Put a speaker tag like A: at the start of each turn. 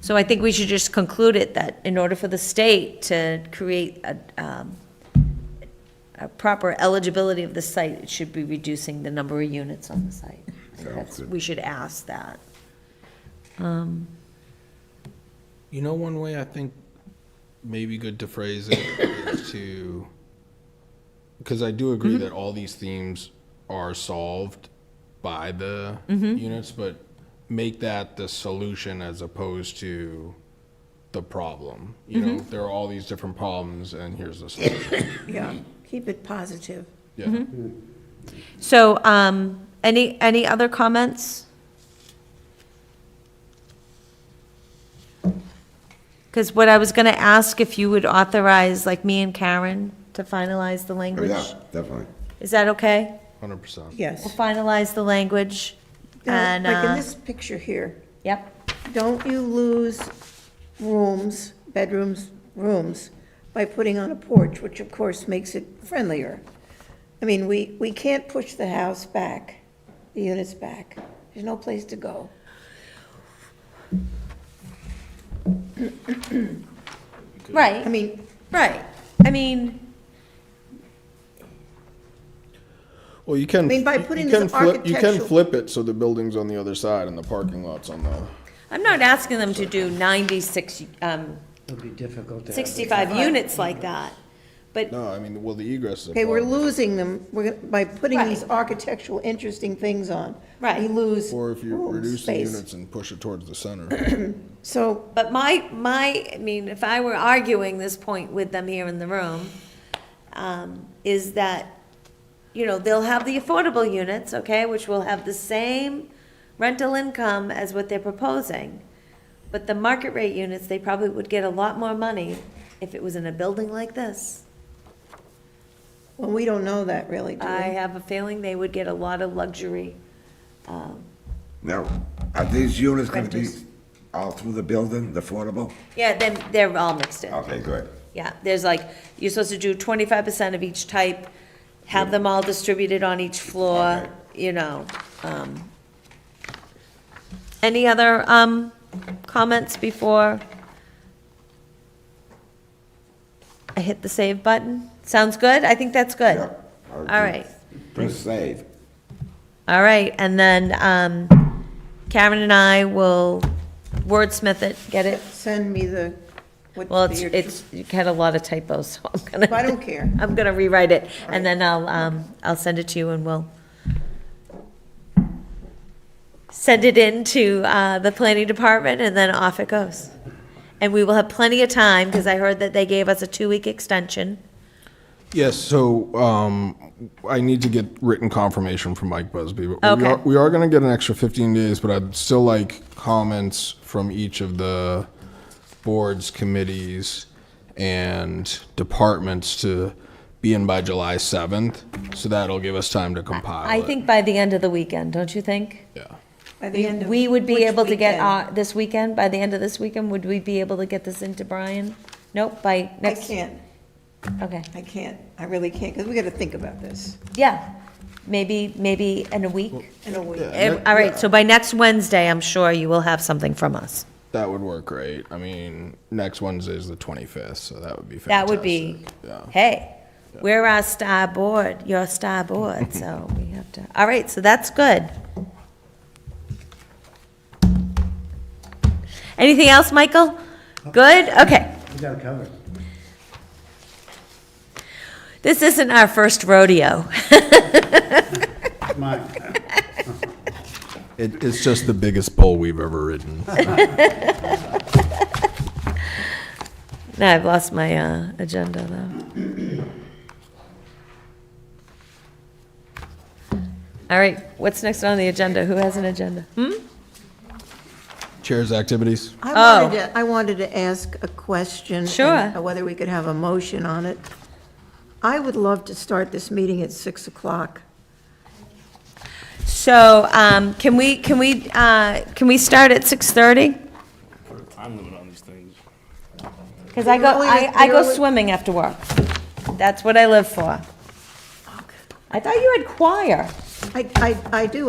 A: So I think we should just conclude it that in order for the state to create a, um, a proper eligibility of the site, it should be reducing the number of units on the site. I think That's, we should ask that.
B: You know, one way I think maybe good to phrase it is to, because I do
C: Mm-hmm.
B: agree that all these themes are solved by the
C: Mm-hmm.
B: units, but make that the solution as opposed to the problem. You know,
C: Mm-hmm.
B: there are all these different problems, and here's the solution.
C: Yeah, keep it positive.
B: Yeah.
C: Mm-hmm.
A: So, um, any, any other comments? Because what I was gonna ask if you would authorize, like, me and Karen to finalize the
D: Oh,
A: language.
D: yeah, definitely.
A: Is that okay?
B: Hundred percent.
A: We'll
C: Yes.
A: finalize the language
C: Now,
A: and,
C: Like in
A: uh,
C: this picture here,
A: yep.
C: don't you lose rooms, bedrooms, rooms, by putting on a porch, which of course makes it friendlier. I mean, we, we can't push the house back, the units back. There's no place to go. I
A: Right,
C: mean,
A: right. I mean,
B: Well, you can.
C: I mean, by
B: you- you
C: putting
B: can
C: this
B: flip- You can
C: architectural-
B: flip it so the building's on the other side and the parking lot's on the.
A: I'm not asking them to do ninety-six, um,
E: It'll be difficult to. have it.
A: sixty-five units like that, but
B: No, I mean, well, the egress is. a
C: okay, we're
B: problem.
C: losing them, we're, gonna- by putting these
A: Right.
C: architectural, interesting things on. We
A: Right.
C: lose
B: Or if you
C: room
B: reduce the
C: space.
B: units and push it towards the center.
C: So,
A: But my, my, I mean, if I were arguing this point with them here in the room, um, is that, you know, they'll have the affordable units, okay, which will have the same rental income as what they're proposing. But the market rate units, they probably would get a lot more money if it was in a building like this.
C: well, we don't know that really, do we?
A: I have a feeling they would get a lot of luxury.
D: Now, are these units gonna be
A: Rentals.
D: all through the building, the affordable?
A: Yeah, then they're all mixed in.
D: Okay, good.
A: Yeah, there's like, you're supposed to do twenty-five percent of each type, have them all distributed on each floor,
D: Okay.
A: you know, um. Any other, um, comments before? I hit the save button? Sounds good? I think that's good.
D: Yeah, I
A: All
D: agree.
A: right,
D: Press save.
A: all right, and then, um, Karen and I will wordsmith it, get it?
C: Send me the, what.
A: Well, it's,
C: your-
A: it's, you had a lot of typos, so I'm gonna.
C: I don't care.
A: I'm gonna rewrite it, and then I'll, um, I'll send it to you and we'll send it in to, uh, the planning department, and then off it goes. And we will have plenty of time, because I heard that they gave us a two-week extension.
B: Yes, so um, I need to get written confirmation from Mike Busby. but We
A: Okay.
B: are, we are going to get an extra 15 days, but I'd still like comments from each of the boards, committees, and departments to be in by July 7th. So that'll give us time to compile
A: I
B: it.
A: think by the end of the weekend, don't you think?
B: Yeah.
C: By the end of
A: We would be
C: which
A: able to get,
C: weekend?
A: uh, this weekend, by the end of this weekend, would we be able to get this into Brian? Nope, by
C: I
A: next.
C: can't,
A: Okay,
C: I can't, I really can't, because we got to think about this
A: yeah, maybe, maybe in a week.
C: in a week.
B: Yeah.
A: Ev- All right, so by next Wednesday, I'm sure you will have something from us.
B: That would work great. I mean, next Wednesday is the 25th, so that would be fantastic.
A: That would be,
B: Yeah.
A: hey, we're our star board, your star board, so we have to, all right, so that's good. Anything else, Michael? Good, okay.
E: We got it covered.
A: This isn't our first rodeo.
E: It's mine.
B: It, it's just the biggest bull we've ever ridden.
A: No, I've lost my uh, agenda, though. All right, what's next on the agenda? Who has an agenda? Hmm?
B: Chairs activities.
C: I
A: Oh.
C: wanted to, I wanted to ask a question. and uh,
A: Sure.
C: Whether we could have a motion on it. I would love to start this meeting at 6 o'clock.
A: So, um, can we, can we, uh, can we start at 6:30?
F: put a time limit on these things.
A: Because I go,
C: You're only-
A: I, I
C: you're
A: go
C: only-
A: swimming after work. That's what I live for. I thought you had choir.
C: I, I, I do,